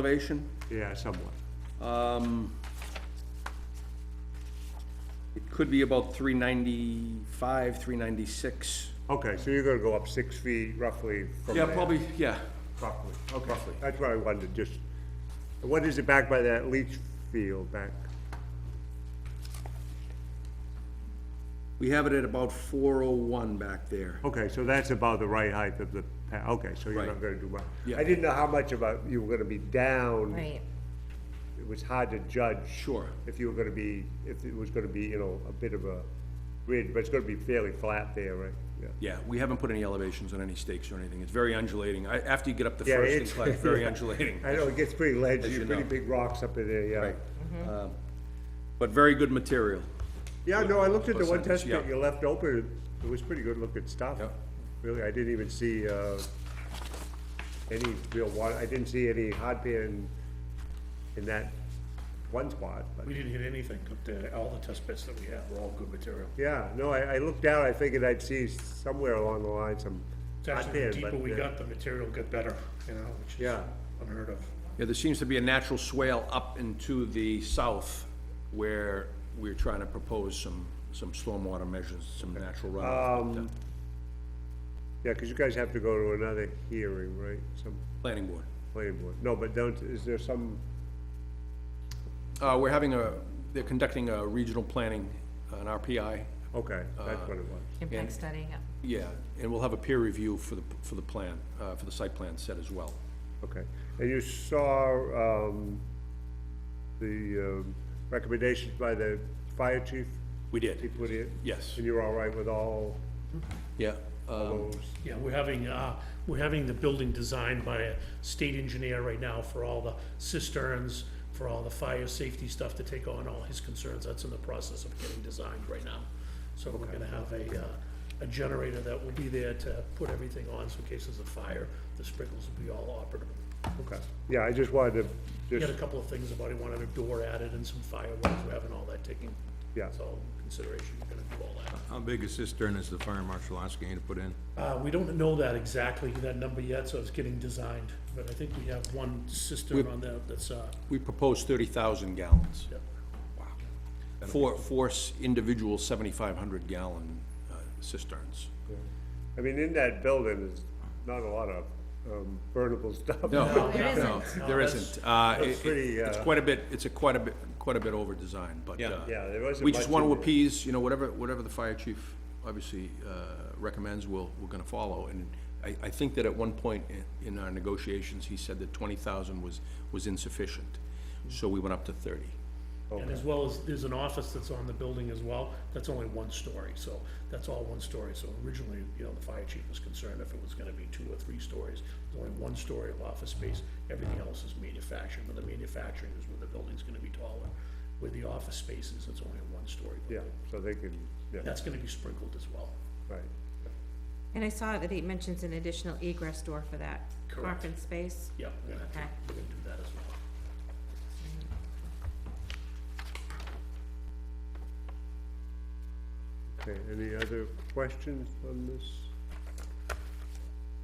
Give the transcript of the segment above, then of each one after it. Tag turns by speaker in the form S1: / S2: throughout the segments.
S1: elevation.
S2: Yeah, somewhat.
S1: Um, It could be about three ninety-five, three ninety-six.
S2: Okay, so you're gonna go up six feet roughly from
S1: Yeah,
S2: there,
S1: probably, yeah,
S2: Roughly, okay.
S1: roughly.
S2: That's what I wanted, just, what is it back by that leach field back?
S1: We have it at about four oh one back there.
S2: Okay, so that's about the right height of the, pa- okay, so you're not
S1: Right.
S2: gonna do much.
S1: Yeah.
S2: I didn't know how much about, you were gonna be down.
S3: Right,
S2: It was hard to judge.
S1: Sure.
S2: If you were gonna be, if it was gonna be, you know, a bit of a ridge, but it's gonna be fairly flat there, right? Yeah.
S1: Yeah, we haven't put any elevations on any stakes or anything. It's very undulating. I, after you get up the
S2: Yeah,
S1: first
S2: it's-
S1: incline, it's very undulating.
S2: I know, it gets pretty
S1: As
S2: ledgy,
S1: you
S2: pretty
S1: know.
S2: big rocks up in there, yeah.
S1: Right.
S2: Mm-hmm.
S1: Um, But very good material.
S2: Yeah, no, I looked at the one
S1: Percentage,
S2: test pit
S1: yeah.
S2: you left open, it was pretty good looking stuff.
S1: Yep.
S2: Really, I didn't even see, uh, any real water, I didn't see any hot pan in that one spot, but,
S4: We didn't hit anything up there, all the test bits that we had were all good material.
S2: yeah, no, I, I looked down, I figured I'd see somewhere along the line some
S4: It's
S2: hot
S4: actually,
S2: pan,
S4: the deeper
S2: but,
S4: we
S2: uh,
S4: got, the material got better, you know, which is
S2: Yeah.
S4: unheard of.
S1: Yeah, there seems to be a natural swale up into the south where we're trying to propose some, some stormwater measures, some natural
S2: Um,
S1: runoff. but, uh,
S2: Yeah, cause you guys have to go to another hearing, right, some
S1: Planning board.
S2: planning board, no, but don't, is there some,
S1: Uh, we're having a, they're conducting a regional planning, an RPI,
S2: okay,
S4: Uh,
S2: that's what it was.
S3: impact study, yeah.
S1: yeah, and we'll have a peer review for the, for the plan, uh, for the site plan set as well.
S2: Okay, and you saw, um, the, um, recommendations by the fire chief?
S1: We did,
S2: He put in?
S1: yes,
S2: And you're all right with all
S1: yeah. um,
S2: those?
S4: Yeah, we're having, uh, we're having the building designed by a state engineer right now for all the cisterns, for all the fire safety stuff to take on all his concerns, that's in the process of getting designed right now. So we're gonna have a, uh, a generator that will be there to put everything on, so in case there's a fire, the sprinklers will be all operable.
S2: Okay, yeah, I just wanted to,
S4: He had a
S2: just,
S4: couple of things about, he wanted a door added and some fireworks, we're having all that taken.
S2: Yeah.
S4: It's all in consideration, we're gonna do all
S5: How big a cistern is the fire marshal asking you to put in?
S4: that. Uh, we don't know that exactly, that number yet, so it's getting designed, but I think we have one cistern on that, that's, uh,
S1: We proposed thirty thousand gallons,
S4: yeah.
S1: four, four s- individual seventy-five hundred gallon uh, cisterns.
S2: I mean, in that building is not a lot of, um, burnable stuff.
S1: No,
S3: there
S1: no,
S3: isn't.
S1: there
S4: No,
S1: isn't. Uh,
S2: that's
S1: it- it-
S2: pretty,
S1: It's
S2: uh,
S1: quite a bit, it's a quite a bit, quite a bit over-designed, but. Yeah,
S2: Yeah, there wasn't
S1: We just
S2: much
S1: want
S2: in
S1: to
S2: there.
S1: appease, you know, whatever, whatever the fire chief obviously uh, recommends, we'll, we're going to follow. And I, I think that at one point in- in our negotiations, he said that twenty thousand was, was insufficient. So we went up to thirty.
S4: And as well as, there's an office that's on the building as well, that's only one story, so that's all one story. So originally, you know, the fire chief was concerned if it was gonna be two or three stories, There's only one story of office space, everything else is manufacturing, but the manufacturing is where the building's gonna be taller. With the office spaces, it's only a one-story
S2: Yeah,
S4: building.
S2: so they can, yeah,
S4: That's gonna be sprinkled as well.
S2: right,
S3: And I saw that he mentions an additional egress door for that
S4: Correct.
S3: conference space.
S4: Yeah, we're gonna have to,
S3: Okay.
S4: we're gonna do that as well.
S2: okay, any other questions on this?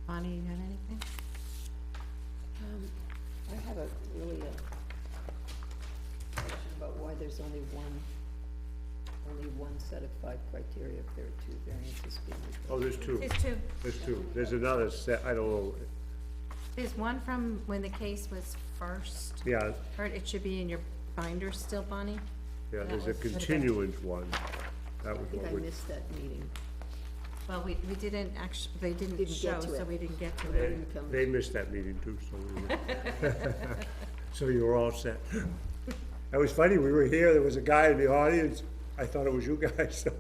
S3: Bonnie, you got anything?
S6: Um, I have a, really a question about why there's only one, only one set of five criteria if there are two variances being requested.
S2: Oh, there's two,
S3: There's two,
S2: there's two, there's another set, I don't know,
S3: there's one from when the case was first,
S2: yeah,
S3: or it should be in your binder still, Bonnie?
S2: yeah,
S3: That
S2: there's a
S3: was-
S2: continuance one. That
S6: I
S2: was
S6: think
S2: what
S6: I
S2: we
S6: missed that meeting.
S3: Well, we, we didn't actu, they didn't
S6: Didn't get
S3: show,
S6: to
S3: so
S6: it.
S3: we didn't get to
S6: I
S3: it.
S6: didn't come.
S2: They missed that meeting too, so we were. So you were all set. It was funny, we were here, there was a guy in the audience, I thought it was you guys, so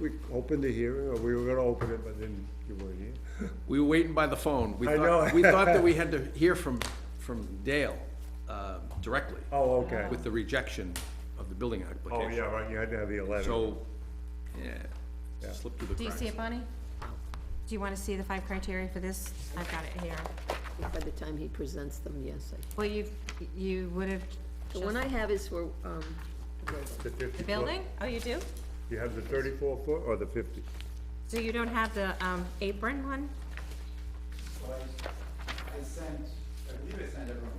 S2: we opened the hearing, or we were gonna open it, but then you weren't here.
S1: We were waiting by the phone. We
S2: I
S1: thought-
S2: know.
S1: We thought that we had to hear from, from Dale uh, directly
S2: Oh, okay.
S1: with the rejection of the building
S2: Oh, yeah,
S1: application.
S2: right, you had to have the eleven.
S1: So, yeah, slipped through the cracks.
S3: Do you see it, Bonnie? Do you wanna see the five criteria for this? I've got it here.
S6: By the time he presents them, yes, I.
S3: Well, you, you would have.
S6: The one I have is for, um, the building.
S2: The 50
S3: The
S2: foot.
S3: building? Oh, you do?
S2: You have the thirty-four foot or the fifty?
S3: So you don't have the, um, apron one?
S7: But I, I sent, I believe I sent everyone